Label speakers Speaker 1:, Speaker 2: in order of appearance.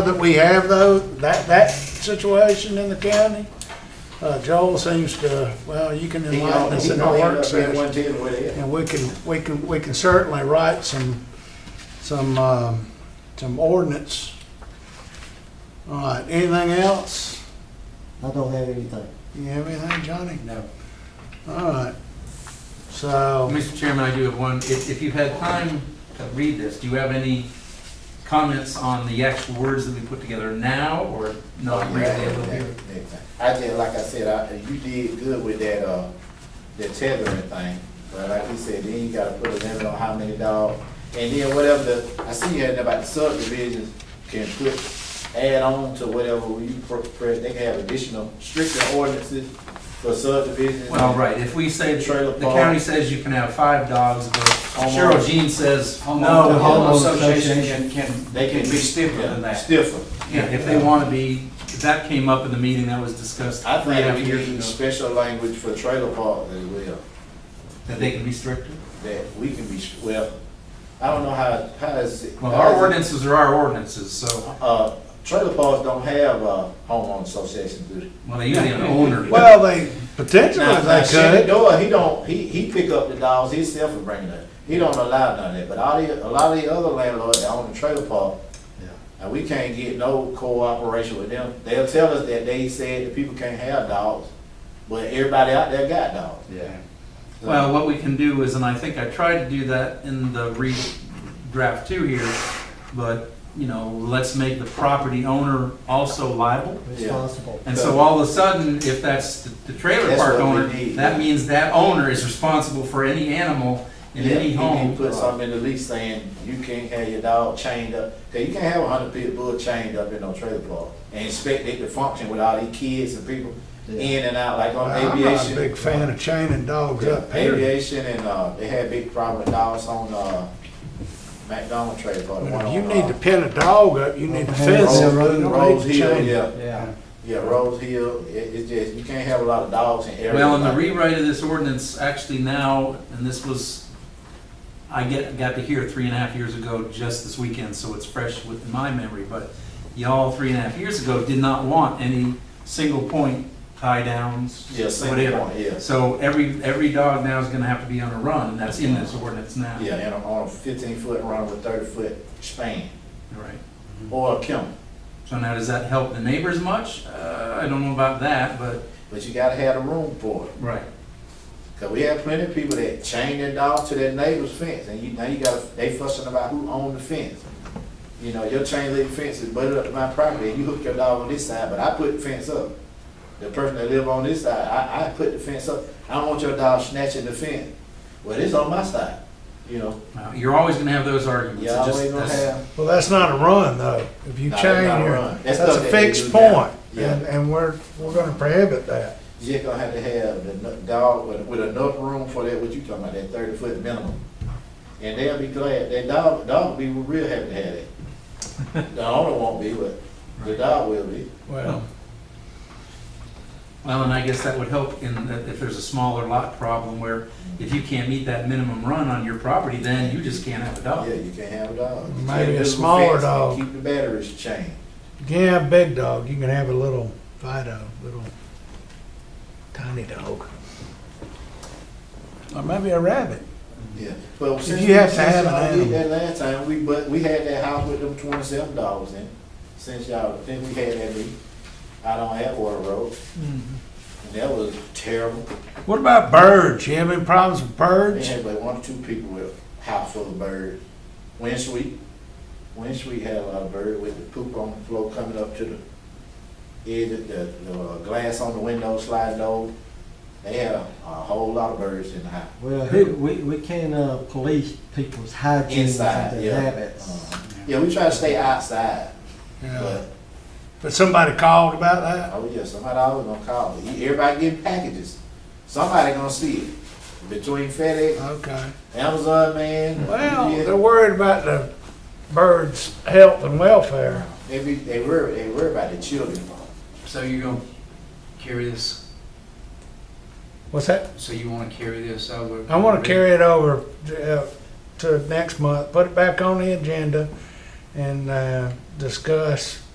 Speaker 1: that we have though, that, that situation in the county, uh, Joel seems to, well, you can
Speaker 2: He
Speaker 1: enlighten
Speaker 2: don't,
Speaker 1: us
Speaker 2: he
Speaker 1: in the
Speaker 2: don't end
Speaker 1: work
Speaker 2: up being
Speaker 1: session.
Speaker 2: one ten with it.
Speaker 1: And we can, we can, we can certainly write some, some, um, some ordinance. All right, anything else?
Speaker 3: I don't have anything.
Speaker 1: You have anything, Johnny?
Speaker 2: No.
Speaker 1: All right. So,
Speaker 4: Mr. Chairman, I do have one. If, if you've had time to read this, do you have any comments on the actual words that we put together now or not? really?
Speaker 2: I just, like I said, I, you did good with that, uh, that tethering thing, but like you said, then you gotta put a limit on how many dogs. And then whatever the, I see you had about the subdivisions can put, add on to whatever you, pro- pro- they can have additional stricter ordinances for subdivisions.
Speaker 4: Well, right, if we say,
Speaker 2: Trailer
Speaker 4: the
Speaker 2: park.
Speaker 4: county says you can have five dogs, but Cheryl Jean says,
Speaker 3: The
Speaker 4: no.
Speaker 3: homeowner
Speaker 5: Homeowner association
Speaker 3: association.
Speaker 5: can, can,
Speaker 2: They can
Speaker 5: be stiffer than that.
Speaker 2: Stiffer.
Speaker 4: Yeah, if they want to be, that came up in the meeting that was discussed
Speaker 2: I
Speaker 4: three and a
Speaker 2: think
Speaker 4: half
Speaker 2: we
Speaker 4: years
Speaker 2: need
Speaker 4: ago,
Speaker 2: special language for trailer parks as well.
Speaker 4: that they can be stricter.
Speaker 2: that we can be, well, I don't know how, how is it?
Speaker 4: Well, our ordinances are our ordinances, so,
Speaker 2: Uh, trailer parks don't have, uh, homeowners associations, do they?
Speaker 4: well, they usually have an owner.
Speaker 1: well, they, potentially
Speaker 2: Now, now,
Speaker 1: they could.
Speaker 2: Shenandoah, he don't, he, he pick up the dogs himself and bring it up. He don't allow none of that, but all the, a lot of the other landlords that own the trailer park, and we can't get no cooperation with them. They'll tell us that they said that people can't have dogs, but everybody out there got dogs.
Speaker 5: Yeah.
Speaker 4: Well, what we can do is, and I think I tried to do that in the redraft two here, but, you know, let's make the property owner also liable.
Speaker 3: Responsible.
Speaker 4: And so all of a sudden, if that's the- the trailer
Speaker 2: That's
Speaker 4: park
Speaker 2: what we
Speaker 4: owner,
Speaker 2: need.
Speaker 4: that means that owner is responsible for any animal in
Speaker 2: Yeah,
Speaker 4: any
Speaker 2: you
Speaker 4: home.
Speaker 2: can Put something in the lease saying you can't have your dog chained up, cause you can't have a hundred pit bull chained up in no trailer park and expect it to function with all these kids and people in and out, like on
Speaker 1: I'm not a
Speaker 2: aviation.
Speaker 1: big fan of chaining dogs up, period.
Speaker 2: Aviation and, uh, they had big problem with dogs on, uh, McDonald trailer park.
Speaker 1: But
Speaker 2: one
Speaker 1: if you
Speaker 2: on,
Speaker 1: need
Speaker 2: uh,
Speaker 1: to pin a dog up, you need to
Speaker 3: Okay.
Speaker 1: fence it.
Speaker 3: Rose-
Speaker 1: You don't
Speaker 2: Rose
Speaker 1: need to
Speaker 2: Hill,
Speaker 1: chain it.
Speaker 2: yeah,
Speaker 5: Yeah.
Speaker 2: yeah, Rose Hill, it, it's just, you can't have a lot of dogs in areas.
Speaker 4: Well, in the
Speaker 2: like-
Speaker 4: rewrite of this ordinance, actually now, and this was, I get, got to hear three and a half years ago, just this weekend, so it's fresh within my memory, but y'all, three and a half years ago, did not want any single point tie downs,
Speaker 2: Yeah, single
Speaker 4: whatever.
Speaker 2: point, yeah.
Speaker 4: So every, every dog now is gonna have to be on a run, and that's in this ordinance now.
Speaker 2: Yeah, and on a fifteen foot run with thirty foot span,
Speaker 4: Right.
Speaker 2: or a kennel.
Speaker 4: So now, does that help the neighbors much? Uh, I don't know about that, but.
Speaker 2: But you gotta have the room for it,
Speaker 4: Right.
Speaker 2: cause we have plenty of people that chain their dogs to their neighbor's fence, and you, now you gotta, they fussing about who owned the fence. You know, your chain link fence is butted up to my property, and you hook your dog on this side, but I put the fence up. The person that live on this side, I, I put the fence up, I don't want your dog snatching the fence, well, it's on my side, you know,
Speaker 4: Uh, You're always gonna have those arguments.
Speaker 2: you
Speaker 4: It just-
Speaker 2: always gonna
Speaker 4: that's-
Speaker 2: have.
Speaker 1: Well, that's not a run, though. If you
Speaker 2: No,
Speaker 1: chain
Speaker 2: that's not a
Speaker 1: your,
Speaker 2: run.
Speaker 1: that's
Speaker 2: That's
Speaker 1: a
Speaker 2: stuff that they
Speaker 1: fixed
Speaker 2: do now.
Speaker 1: point,
Speaker 2: Yeah.
Speaker 1: and, and we're, we're gonna prohibit that.
Speaker 2: You just gonna have to have the nu- dog with, with enough room for that, what you talking about, that thirty foot minimum. And they'll be glad, that dog, dog will be real happy to have it. The owner won't be, but the dog will be.
Speaker 1: Well,
Speaker 4: Well, and I guess that would help in that if there's a smaller lot problem where if you can't meet that minimum run on your property, then you just can't have a
Speaker 2: Yeah,
Speaker 4: dog.
Speaker 2: you can have a dog. You
Speaker 1: Maybe
Speaker 2: can't
Speaker 1: a
Speaker 2: do
Speaker 1: smaller
Speaker 2: fence and
Speaker 1: dog.
Speaker 2: Keep the batteries chained.
Speaker 1: you can have a big dog, you can have a little Fido, little tiny dog. Or maybe a rabbit.
Speaker 2: Yeah. Well, since
Speaker 1: you
Speaker 2: we-
Speaker 1: have to
Speaker 2: since
Speaker 1: have an
Speaker 2: y'all did That last time, we, but, we had that house with them twenty-seven dogs in, since y'all, then we had that meeting out on Atwater Road.
Speaker 1: Mm-hmm.
Speaker 2: And that was terrible.
Speaker 1: What about birds? You have any problems with
Speaker 2: They
Speaker 1: birds?
Speaker 2: had like one or two people with a house full of birds. Windsweep, Windsweep had a lot of bird with the poop on the floor coming up to the edge of the, the uh, glass on the window sliding over. They had a, a whole lot of birds in the house.
Speaker 3: Well,
Speaker 1: Who-
Speaker 3: we, we can't, uh, police people's hygiene and
Speaker 2: Inside,
Speaker 3: their
Speaker 2: yeah. Uh-huh.
Speaker 3: habits.
Speaker 2: Yeah, we try to stay outside,
Speaker 1: Yeah.
Speaker 2: but,
Speaker 1: But somebody called about that?
Speaker 2: oh yeah, somebody always gonna call. You- Everybody getting packages. Somebody gonna see it. Between FedEx,
Speaker 1: Okay.
Speaker 2: Amazon, man.
Speaker 1: Well,
Speaker 2: UPS.
Speaker 1: they're worried about the birds' health and welfare.
Speaker 2: They be, they worry, they worry about the children.
Speaker 5: So you're gonna carry this,
Speaker 1: What's that?
Speaker 5: so you wanna carry this over?
Speaker 1: I want to carry it over uh, to next month, put it back on the agenda and uh, discuss